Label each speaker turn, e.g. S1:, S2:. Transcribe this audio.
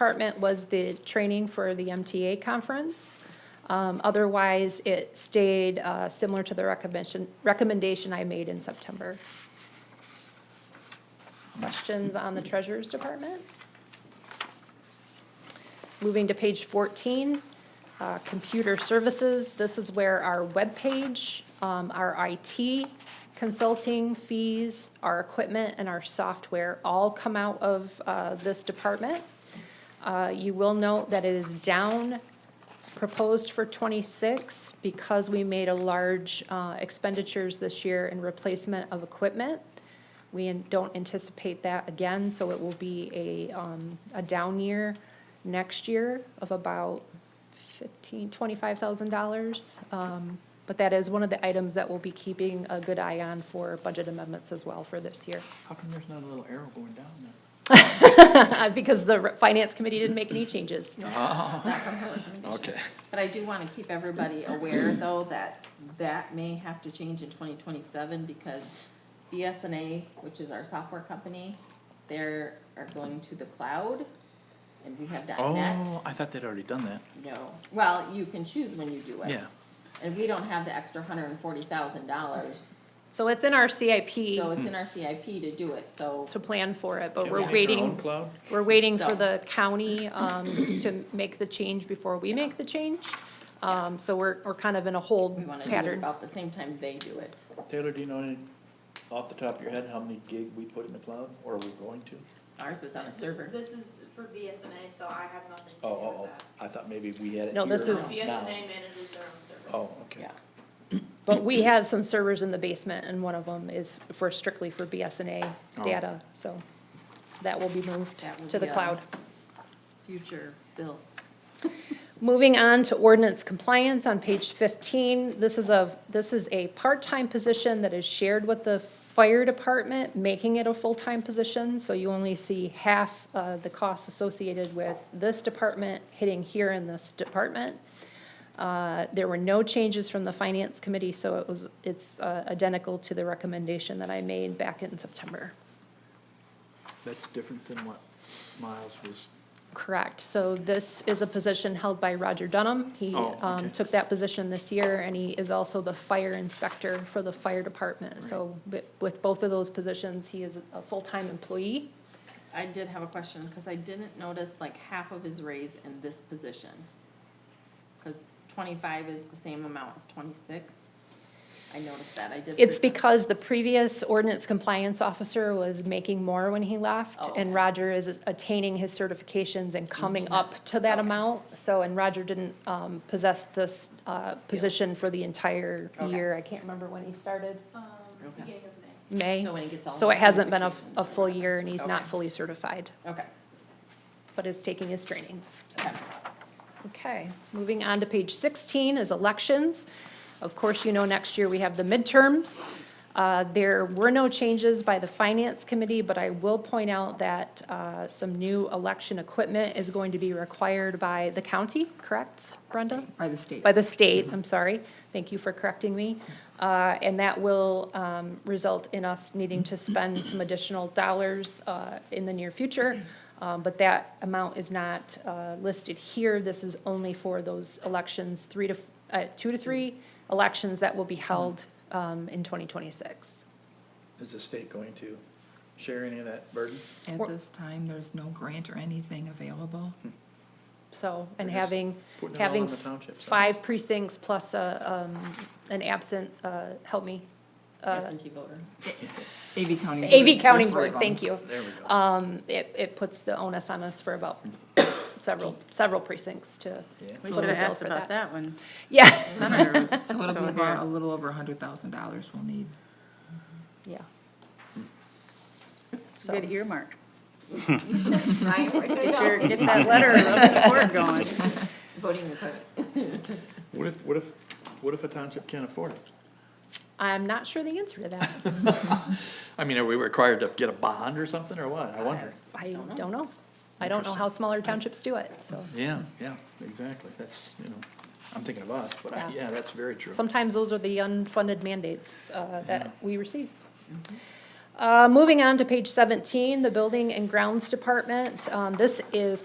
S1: department was the training for the MTA conference. Um, Otherwise, it stayed uh, similar to the recommendation, recommendation I made in September. Questions on the treasurer's department? Moving to page fourteen, uh, computer services, this is where our webpage, um, our IT consulting fees, our equipment, and our software all come out of, uh, this department. Uh, you will note that it is down proposed for twenty-six because we made a large, uh, expenditures this year in replacement of equipment. We an- don't anticipate that again, so it will be a, um, a down year next year of about fifteen, twenty-five thousand dollars. Um, but that is one of the items that we'll be keeping a good eye on for budget amendments as well for this year.
S2: How come there's not a little arrow going down there?
S1: Because the finance committee didn't make any changes.
S2: Okay.
S3: But I do want to keep everybody aware, though, that that may have to change in twenty twenty-seven because BSNA, which is our software company, they are going to the cloud and we have dot net.
S2: Oh, I thought they'd already done that.
S3: No, well, you can choose when you do it.
S2: Yeah.
S3: And we don't have the extra hundred and forty thousand dollars,
S1: So it's in our
S3: so
S1: CIP
S3: it's in our CIP to do it, so.
S1: to plan for it, but
S2: Can
S1: we're
S2: we make our own
S1: waiting,
S2: Cloud?
S1: we're waiting for
S3: So-
S1: the county, um, to make the change before we make the change. Um, so we're, we're kind of in a
S3: We
S1: hold
S3: want to do it
S1: pattern.
S3: about the same time they do it.
S2: Taylor, do you know any, off the top of your head, how many gig we put in the cloud, or are we going to?
S3: Ours is on a server.
S4: This is for BSNA, so I have nothing to
S2: Oh,
S4: do with
S2: oh,
S4: that.
S2: oh, I thought maybe we had it
S1: No,
S2: here
S1: this
S4: No,
S1: is-
S2: now.
S4: BSNA manages their own server.
S2: Oh, okay.
S3: Yeah.
S1: But we have some servers in the basement and one of them is for strictly for BSNA
S2: Oh.
S1: data, so that will be moved
S3: That will
S1: to the
S3: be, uh,
S1: cloud.
S3: Future bill.
S1: Moving on to ordinance compliance on page fifteen, this is a, this is a part-time position that is shared with the fire department, making it a full-time position, so you only see half, uh, the costs associated with this department hitting here in this department. Uh, there were no changes from the finance committee, so it was, it's, uh, identical to the recommendation that I made back in September.
S2: That's different than what Miles was,
S1: Correct. So this is a position held by Roger Dunham. He
S2: Oh,
S1: um,
S2: okay.
S1: took that position this year, and he is also the fire inspector for the fire department. So wi- with both of those positions, he is a full-time employee.
S3: I did have a question, because I didn't notice like half of his raise in this position. Because twenty-five is the same amount as twenty-six. I noticed that, I did.
S1: It's because
S3: because
S1: the previous ordinance compliance officer was making more when he left,
S3: Oh, okay. Mm-hmm.
S1: and Roger is attaining his certifications and coming up to that
S3: Okay.
S1: amount. So, and Roger didn't um, possess this uh, position for the entire
S3: Okay.
S1: year. I can't remember when he started,
S4: Um,
S3: Okay.
S4: beginning of May.
S1: May.
S3: So when he gets all.
S1: So it
S3: his
S1: hasn't been a,
S3: certifications
S1: a
S3: and
S1: full
S3: whatnot.
S1: year and he's not
S3: Okay.
S1: fully certified,
S3: Okay,
S1: but is taking his trainings. so.
S3: okay.
S1: Okay, moving on to page sixteen is elections. Of course, you know, next year we have the midterms. Uh, there were no changes by the finance committee, but I will point out that, uh, some new election equipment is going to be required by the county, correct, Brenda?
S5: By the state.
S1: by the state, I'm sorry. Thank you for correcting me. Uh, And that will um, result in us needing to spend some additional dollars uh, in the near future. Um, But that amount is not uh, listed here. This is only for those elections, three to, f- uh, two to three elections that will be held um, in 2026.
S2: is the state going to share any of that burden?
S5: At this time, there's no grant or anything available.
S1: So, and
S2: They're just
S1: having,
S2: putting it all
S1: having
S2: on the townships,
S1: five precincts plus a, um, an absent, uh, help me, uh,
S3: Absentee voter.
S5: AV County.
S1: AV
S5: Board,
S1: County
S5: there's three
S1: Board,
S5: of 'em.
S1: thank you.
S2: There we go.
S1: Um, it, it puts the onus on us for about several, several precincts to.
S2: Yeah.
S6: We
S1: vote
S6: should have
S1: bill
S6: asked
S1: for
S6: about that one.
S1: Yeah,
S6: Senator was
S5: So it'll be
S6: still
S5: about a
S6: here.
S5: little over a hundred thousand dollars we'll need.
S1: yeah.
S6: It's a
S1: So,
S6: Good earmark.
S4: Right, where they
S6: Get
S4: go.
S6: your, get that letter of support going.
S3: Voting records.
S2: What if, what if, what if a township can't afford it?
S1: I'm not sure the answer to that.
S2: I mean, are we required to get a bond or something, or what? I wonder.
S1: I don't know. I don't know how smaller townships do it, so.
S2: Yeah, yeah, exactly. That's, you know, I'm thinking of us, but I,
S1: Yeah.
S2: yeah, that's very true.
S1: Sometimes those are the unfunded mandates uh, that
S6: Mm-hmm.
S1: we receive. Uh, Moving on to page 17, the Building and Grounds Department. Um, This is